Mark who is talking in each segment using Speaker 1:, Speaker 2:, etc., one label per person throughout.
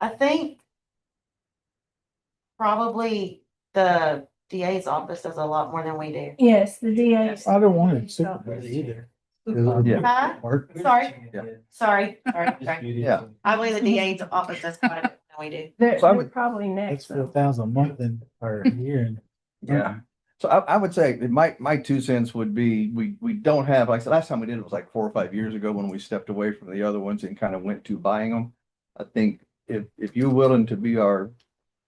Speaker 1: I think probably the DA's office does a lot more than we do.
Speaker 2: Yes, the DA's.
Speaker 3: I don't want it secret either.
Speaker 4: Yeah.
Speaker 1: Huh?
Speaker 3: Work.
Speaker 1: Sorry. Sorry, sorry, sorry.
Speaker 4: Yeah.
Speaker 1: I believe the DA's office does quite a bit more than we do.
Speaker 2: They're,
Speaker 4: So I
Speaker 2: they're
Speaker 4: would-
Speaker 2: probably
Speaker 3: That's
Speaker 2: next.
Speaker 3: four
Speaker 2: though.
Speaker 3: thousand a month and, or a year. and-
Speaker 4: Yeah. So I, I would say that my, my two cents would be, we, we don't have, like, the last time we did it was like four or five years ago when we stepped away from the other ones and kind of went to buying them. I think if, if you're willing to be our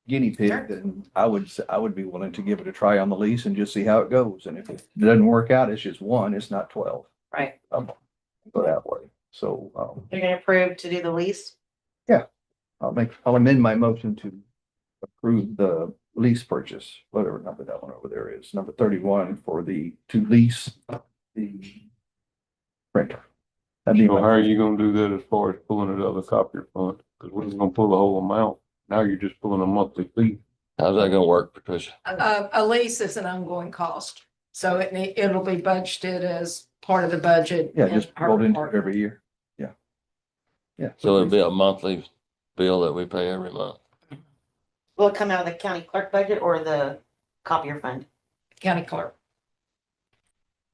Speaker 4: guinea
Speaker 1: Sure.
Speaker 4: pig, then I would, s- I would be willing to give it a try on the lease and just see how it goes. And if it doesn't work out, it's just one, it's not twelve.
Speaker 1: Right.
Speaker 4: Um, Go that way. So, um,
Speaker 1: You're gonna approve to do the lease?
Speaker 4: I'll make, I'll amend my motion to approve the lease purchase, whatever number that one over there is, number thirty-one for the, to lease the printer. That'd be
Speaker 5: So how
Speaker 4: my-
Speaker 5: are you gonna do that as far as pulling it out of the copier fund? Cause we was gonna pull the whole amount. Now you're just pulling a monthly fee.
Speaker 6: How's that gonna work, Patricia?
Speaker 7: A, a lease is an ongoing cost, so it, ne- it'll be budgeted as part of the budget.
Speaker 4: Yeah,
Speaker 7: in
Speaker 4: just
Speaker 7: our
Speaker 4: rolled into it
Speaker 7: department.
Speaker 4: every year. Yeah. Yeah.
Speaker 6: So it'd be a monthly bill that we pay every month.
Speaker 1: Will it come out of the county clerk budget or the copier fund?
Speaker 7: County clerk.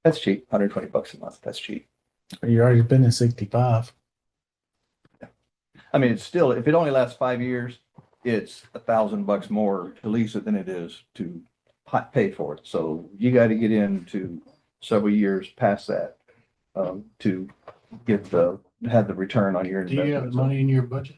Speaker 4: That's cheap, hundred twenty bucks a month. That's cheap.
Speaker 3: You're already spending sixty-five.
Speaker 4: I mean, it's still, if it only lasts five years, it's a thousand bucks more to lease it than it is to pa- pay for it. So you got to get into several years past that um, to get the, have the return on your investment. So-
Speaker 3: in your budget?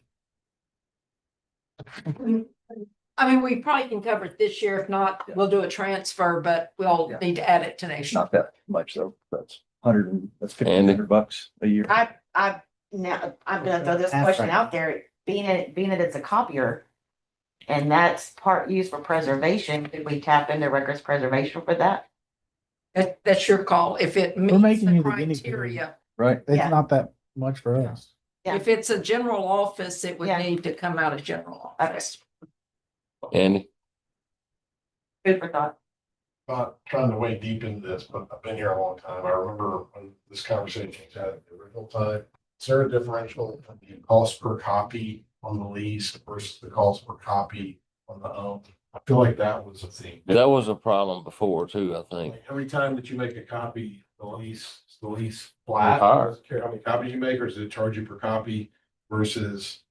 Speaker 7: I mean, we probably can cover it this year. If not, we'll do a transfer, but we'll
Speaker 4: Yeah.
Speaker 7: need to add it to
Speaker 4: It's
Speaker 7: next year.
Speaker 4: not that much though. That's hundred, and that's fifteen
Speaker 6: And-
Speaker 4: hundred bucks a year.
Speaker 1: I, I, now, I'm gonna throw this
Speaker 3: That's
Speaker 1: question
Speaker 3: right.
Speaker 1: out there, being it, being that it's a copier. And that's part used for preservation, could we tap into records preservation for that?
Speaker 7: That, that's your call. If it meets
Speaker 3: making
Speaker 7: the
Speaker 3: you the guinea pig.
Speaker 7: criteria.
Speaker 4: Right.
Speaker 1: Yeah.
Speaker 3: It's not that much for us.
Speaker 1: Yeah.
Speaker 7: If it's a general office, it would
Speaker 1: Yeah.
Speaker 7: need to come out of general
Speaker 1: Okay.
Speaker 7: office.
Speaker 6: Andy,
Speaker 1: Food for thought.
Speaker 8: not trying to wade deep into this, but I've been here a long time. I remember when this conversation was had at the original time. Is there a differential in the cost per copy on the lease versus the cost per copy on the own? I feel like that was a thing.
Speaker 6: that was a problem before too, I think.
Speaker 8: Like every time that you make a copy, the lease, is the lease
Speaker 5: Or
Speaker 8: flat.
Speaker 5: higher.
Speaker 8: Does it Care how many copies you make, or does it charge you per copy versus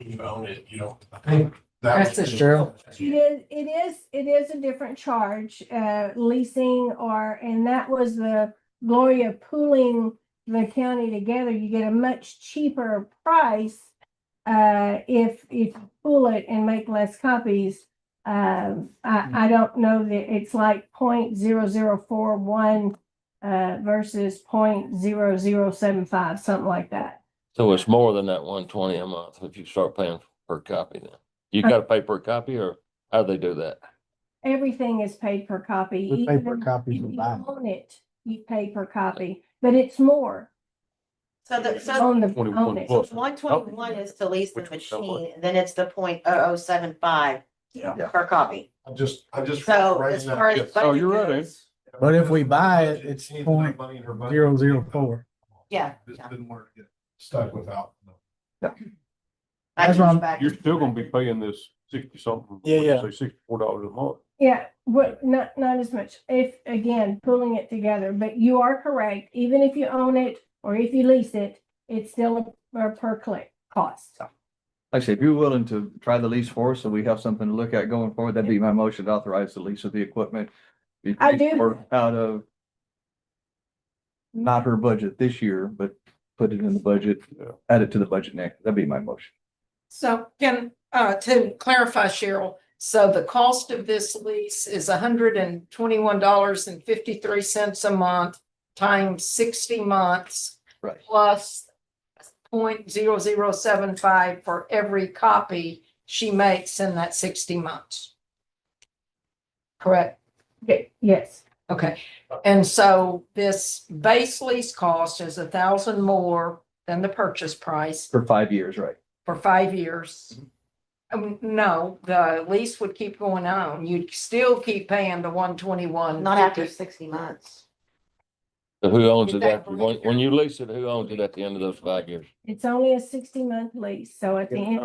Speaker 8: you own it, you know? I think that
Speaker 7: That's
Speaker 8: was-
Speaker 7: the-
Speaker 3: Cheryl?
Speaker 2: It is, it is, it is a different charge, uh, leasing or, and that was the glory of pooling the county together. You get a much cheaper price uh, if, if you pool it and make less copies. Um, I, I don't know that it's like point zero zero four one uh, versus point zero zero seven five, something like that.
Speaker 6: So it's more than that one twenty a month if you start paying per copy then. You gotta pay per copy or how do they do that?
Speaker 2: Everything is paid per copy.
Speaker 3: We pay per
Speaker 2: even-
Speaker 3: copy
Speaker 2: If
Speaker 3: for
Speaker 2: you
Speaker 3: buying.
Speaker 2: own it, you pay per copy, but it's more
Speaker 1: So the, so
Speaker 2: on the, on
Speaker 5: 21
Speaker 2: it.
Speaker 5: bucks.
Speaker 1: one twenty-one is to lease
Speaker 5: oh.
Speaker 1: the
Speaker 5: Which was so much.
Speaker 1: machine, then it's the point oh oh seven five
Speaker 4: Yeah.
Speaker 1: per copy.
Speaker 8: I'm just, I'm just.
Speaker 1: So
Speaker 8: writing
Speaker 1: as
Speaker 8: that-
Speaker 1: far as.
Speaker 5: Yes. Oh, you're
Speaker 1: budget
Speaker 5: right,
Speaker 1: goes-
Speaker 3: But if we buy it,
Speaker 8: She
Speaker 3: it's
Speaker 8: needs to make
Speaker 3: point
Speaker 8: money in her budget.
Speaker 3: Zero, zero, four.
Speaker 1: Yeah.
Speaker 8: Just didn't want to get stuck without.
Speaker 1: I
Speaker 3: That's
Speaker 1: can
Speaker 3: what I'm-
Speaker 1: back-
Speaker 5: You're still gonna be paying this sixty something.
Speaker 3: Yeah, yeah.
Speaker 5: Say sixty-four dollars a month.
Speaker 2: Yeah, what, not, not as much, if, again, pulling it together, but you are correct, even if you own it or if you lease it, it's still a, a per click cost.
Speaker 4: Like I say, if you're willing to try the lease for us, so we have something to look at going forward, that'd be my motion to authorize the lease of the equipment. Be
Speaker 2: I
Speaker 4: paid
Speaker 2: do.
Speaker 4: for Out of not her budget this year, but put it in the budget,
Speaker 5: Yeah.
Speaker 4: add it to the budget next. That'd be my motion.
Speaker 7: So can, uh, to clarify, Cheryl, so the cost of this lease is hundred and twenty-one dollars and fifty-three cents a month times sixty months
Speaker 4: Right.
Speaker 7: plus point zero zero seven five for every copy she makes in that sixty months. Correct?
Speaker 2: Okay, yes,
Speaker 7: Okay, and so this base lease cost is a thousand more than the purchase price
Speaker 4: For five years, right?
Speaker 7: for five years. Um, no, the lease would keep going on. You'd still keep paying the one twenty-one.
Speaker 1: Not after sixty months.
Speaker 6: So Who owns it after,
Speaker 7: Exactly.
Speaker 6: when, when you lease it, who owns it at the end of those five years?
Speaker 2: it's only a sixty month lease, so at the
Speaker 3: Yeah,
Speaker 2: end.